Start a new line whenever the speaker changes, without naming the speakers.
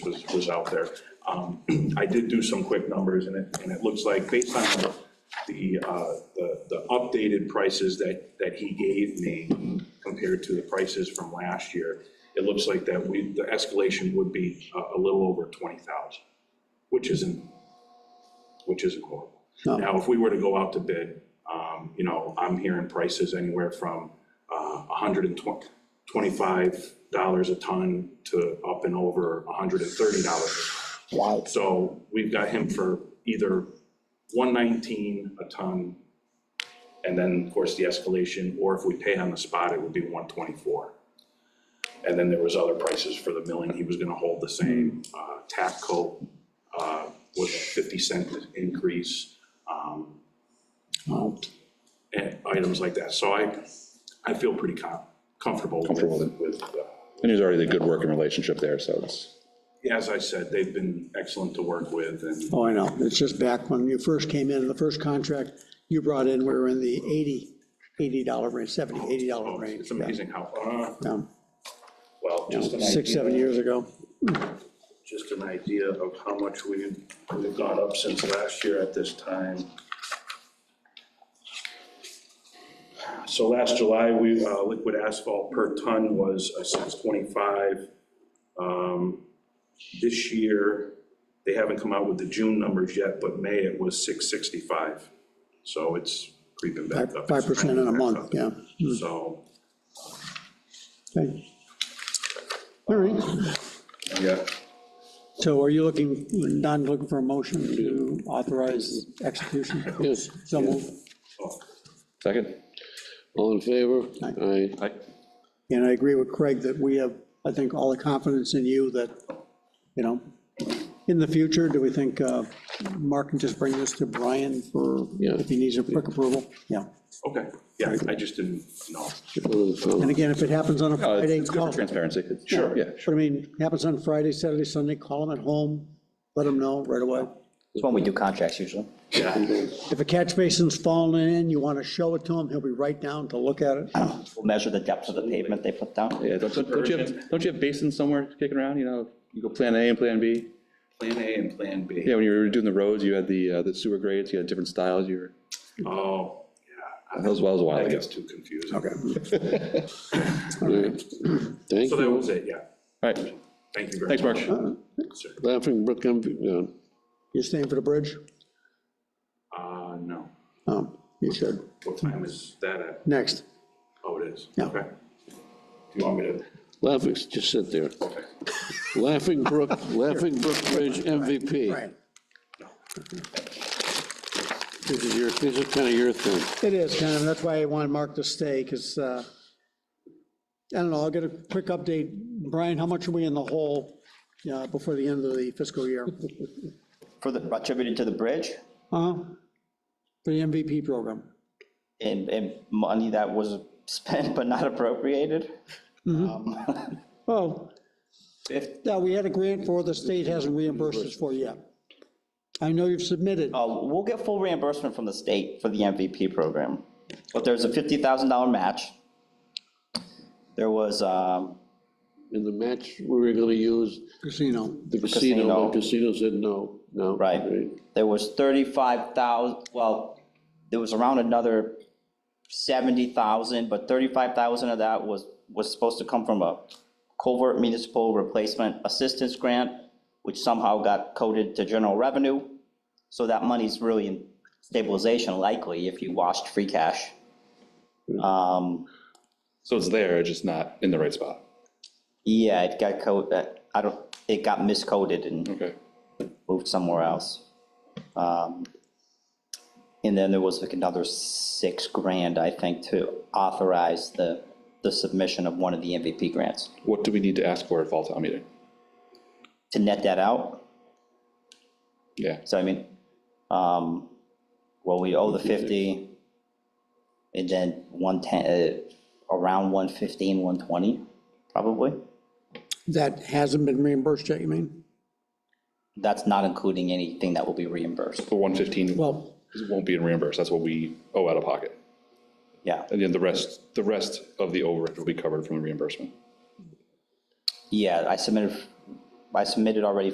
was, was out there. Um, I did do some quick numbers, and it, and it looks like, based on the, the, uh, the the updated prices that, that he gave me compared to the prices from last year, it looks like that we, the escalation would be a, a little over 20,000, which isn't, which isn't horrible.
No.
Now, if we were to go out to bid, um, you know, I'm hearing prices anywhere from uh, $125 a ton to up and over $130 a ton.
Wow.
So we've got him for either 119 a ton, and then, of course, the escalation, or if we pay on the spot, it would be 124. And then there was other prices for the milling, he was gonna hold the same. Uh, Tapco uh, was a 50 cent increase, um,
Wow.
and items like that. So I, I feel pretty com- comfortable
Comfortable with
with,
it.
with, uh,
And there's already a good working relationship there, so it's,
as I said, they've been excellent to work with, and
Oh, I know. It's just back when you first came in, the first contract you brought in, we were in the 80, $80 range, 70, $80 range.
Oh, it's amazing how, uh,
Yeah,
well, just an
yeah. Six,
idea.
seven years ago.
just an idea of how much we've, we've gone up since last year at this time. So last July, we, uh, liquid asphalt per ton was a six twenty-five. Um, this year, they haven't come out with the June numbers yet, but May it was six sixty-five. So it's creeping back up. Hmm.
5% in a month, yeah.
So,
Okay. All right.
yeah,
So are you looking, Don, looking for a motion to authorize execution?
Yes,
So move.
oh,
second?
all in favor? Aye.
Aye.
And I agree with Craig that we have, I think, all the confidence in you that, you know, in the future, do we think uh, Mark can just bring this to Brian for,
Yeah.
if he needs a quick approval? Yeah.
okay, yeah, I just didn't know.
All in favor?
And again, if it happens on a
No, it's-
Friday,
Uh, it's good for
call.
transparency. It's-
Sure.
Yeah,
But I mean, happens on Friday, Saturday, Sunday, call them at home, let them know right away.
It's when we do contracts usually.
Yeah,
If a catch basin's falling in, you want to show it to him, he'll be right down to look at it.
We'll measure the depth of the pavement they put down.
yeah, don't don't you have, don't you have basins somewhere kicking around, you know, you go plan A and plan B?
Plan A and Plan B.
Yeah, when you were doing the roads, you had the, uh, the sewer grades, you had different styles, you were,
Oh,
that was, that was a while
that
ago.
gets too confusing. Okay.
Thank
So that
you.
was it, yeah.
All right,
Thank you very much.
thanks, Mark.
sir.
Laughing Brook, MV- no,
You're staying for the bridge?
Uh, no.
Um, You should.
What time is that at?
Next.
Oh, it is.
Yeah.
Okay. Do you want me to?
Laughing, just sit there.
Okay.
Laughing Brook, Laughing Brook Bridge MVP.
Right.
This is your, this is kind of your thing.
It is kind of, that's why I wanted Mark to stay, because, I don't know, I'll get a quick update. Brian, how much are we in the hole uh, before the end of the fiscal year?
For the, attributed to the bridge
Uh, For the MVP program?
and, and money that was spent but not appropriated.
Oh,
If,
yeah, we had a grant for, the state hasn't reimbursed us for yet. I know you've submitted,
uh, we'll get full reimbursement from the state for the MVP program. But there's a $50,000 match. There was, um,
In the match, we were going to use
casino.
the casino,
Casino.
but casino said no, no.
Right. There was thirty-five thousand, well, there was around another seventy thousand, but thirty-five thousand of that was, was supposed to come from a covert municipal replacement assistance grant, which somehow got coded to general revenue. So that money's really in stabilization likely if you washed free cash. Um,
So it's there, it's just not in the right spot.
yeah, it got coded, I don't, it got miscoded and
Okay.
moved somewhere else. Um, And then there was like another six grand, I think, to authorize the, the submission of one of the MVP grants.
What do we need to ask for at fall town meeting?
To net that out,
Yeah,
so I mean, um, well, we owe the 50, and then 110, uh, around 115, 120, probably.
That hasn't been reimbursed yet, you mean?
That's not including anything that will be reimbursed,
the 115
Well,
won't be reimbursed, that's what we owe out of pocket.
yeah.
And then the rest, the rest of the overage will be covered from the reimbursement.
Yeah, I submitted I submitted already